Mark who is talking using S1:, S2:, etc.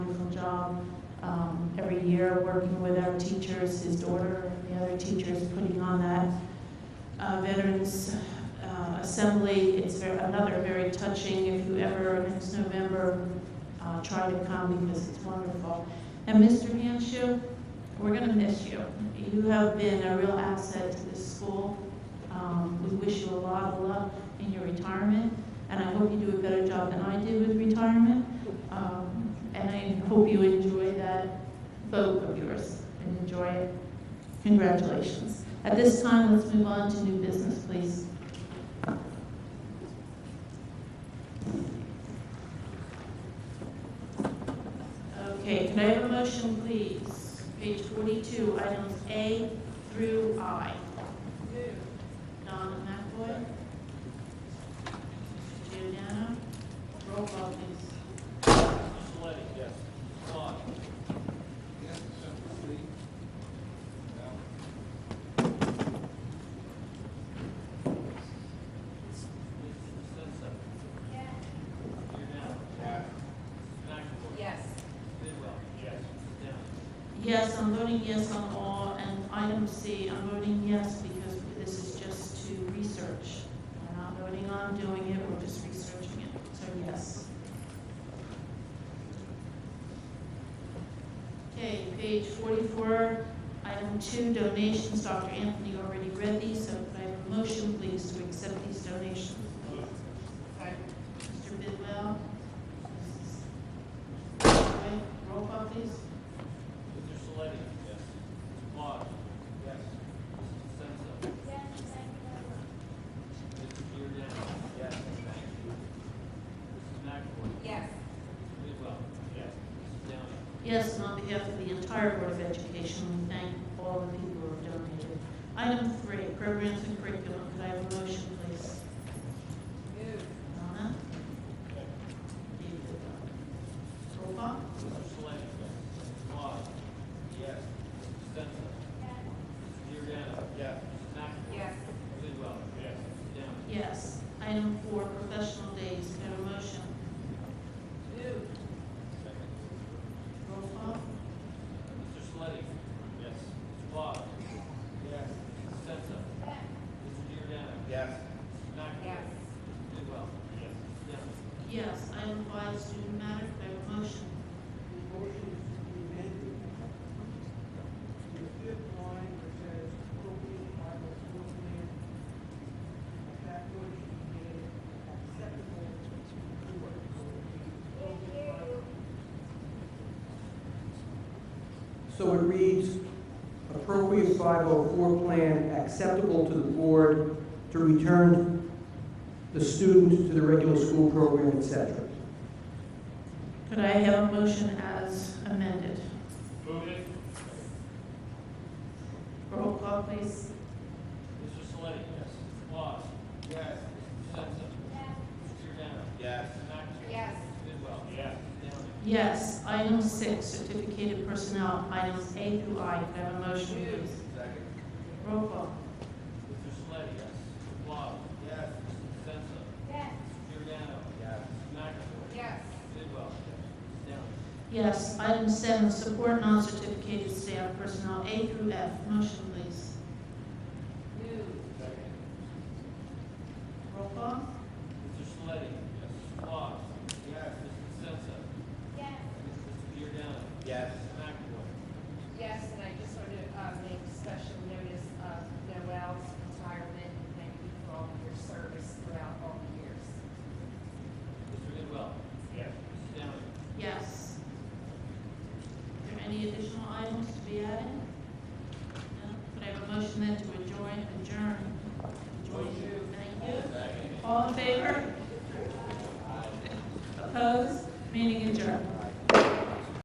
S1: out um, every year, working with our teachers, his daughter and the other teachers, putting on that uh, Veterans uh, Assembly. It's ver- another very touching, if you ever, next November, uh, try to come because it's wonderful. And Mr. Hanshu, we're going to miss you. You have been a real asset to this school. Um, We wish you a lot of luck in your retirement, and I hope you do a better job than I did with retirement. Um, And I hope you enjoy that vote of yours and enjoy it. Congratulations. At this time, let's move on to new business, please. Okay, can I have a motion, please? Page 42, items A through I. Donna McAvoy. Giordano. Roll call, please.
S2: Saletti. Yes. Vaughn.
S3: Yes, Mr. Lee.
S2: Senza. Yes. Giordano.
S3: Yes.
S2: McAvoy.
S4: Yes.
S2: Bidwell. Yes. Downing.
S1: Yes, I'm voting yes on all, and item C, I'm voting yes because this is just to research. We're not voting on doing it, we're just researching it, so yes. Okay, page 44, item 2, donations, Dr. Anthony already read these, so could I have a motion, please, to accept these donations? Mr. Bidwell? Okay, Roll call, please.
S2: Mr. Saletti. Yes. Vaughn. Yes. Senza. Mr. Giordano. Yes. Donahue. Mrs. McAvoy.
S4: Yes.
S2: Bidwell. Yes. Mrs. Downing.
S1: Yes, and on behalf of the entire Board of Education, we thank all the people who have donated. Item three, programs and curriculum, could I have a motion, please?
S4: Move.
S1: Donna? David? Roll call?
S2: Mr. Saletti. Yes. Vaughn. Yes. Senza. Yes. Giordano. Yes. Mrs. McAvoy. Bidwell.
S4: Yes.
S2: Yes. Mrs. Downing.
S1: Yes. Item four, professional days, could I have a motion?
S4: Move.
S1: Roll call?
S2: Mr. Sleddy? Yes. Mr. Boggs? Yes. Mrs. Senza? Yes. Mr. Giordano?
S3: Yes.
S2: Mrs. McAvoy?
S4: Yes.
S2: Mrs. Bidwell? Yes. Mrs. Downing?
S1: Yes. Item five, student matter, could I have a motion?
S5: motion is to be amended. The fifth line that says appropriate by the school plan, that would be made acceptable to the board.
S6: So it reads, appropriate 504 plan acceptable to the board to return the student to the regular school program, et cetera.
S1: Could I have a motion as amended?
S2: Move it.
S1: Roll call, please.
S2: Mr. Sleddy? Yes. Mr. Boggs?
S3: Yes.
S2: Mrs. Senza? Yes. Mr. Giordano?
S3: Yes.
S2: Mrs. McAvoy?
S4: Yes.
S2: Mrs. Bidwell? Yes. Mrs. Downing?
S1: Yes, item six, certificated personnel, items A through I, could I have a motion, please?
S3: Second.
S1: Roll call.
S2: Mr. Sleddy? Yes. Mr. Boggs?
S3: Yes.
S2: Mrs. Senza?
S4: Yes.
S2: Mr. Giordano?
S3: Yes.
S2: Mrs. McAvoy?
S4: Yes.
S2: Mrs. Bidwell? Yes. Mrs. Downing?
S1: Yes, item seven, support non-certificated staff personnel, A through F, motion, please.
S4: Move.
S2: Second.
S1: Roll call.
S2: Mr. Sleddy? Yes. Mr. Boggs?
S3: Yes.
S2: Mrs. Senza?
S4: Yes.
S2: Mr. Giordano?
S3: Yes.
S2: Mrs. McAvoy?
S4: Yes, and I just want to uh, make special notice of Noel's retirement. Thank you for all of your service throughout all the years.
S2: Mr. Goodwell? Yes. Mrs. Downing?
S1: Yes. Are there any additional items to be added? No, could I have a motion then to adjourn, adjourn? Adjourn. Thank you. All in favor? Opposed? Meeting adjourned.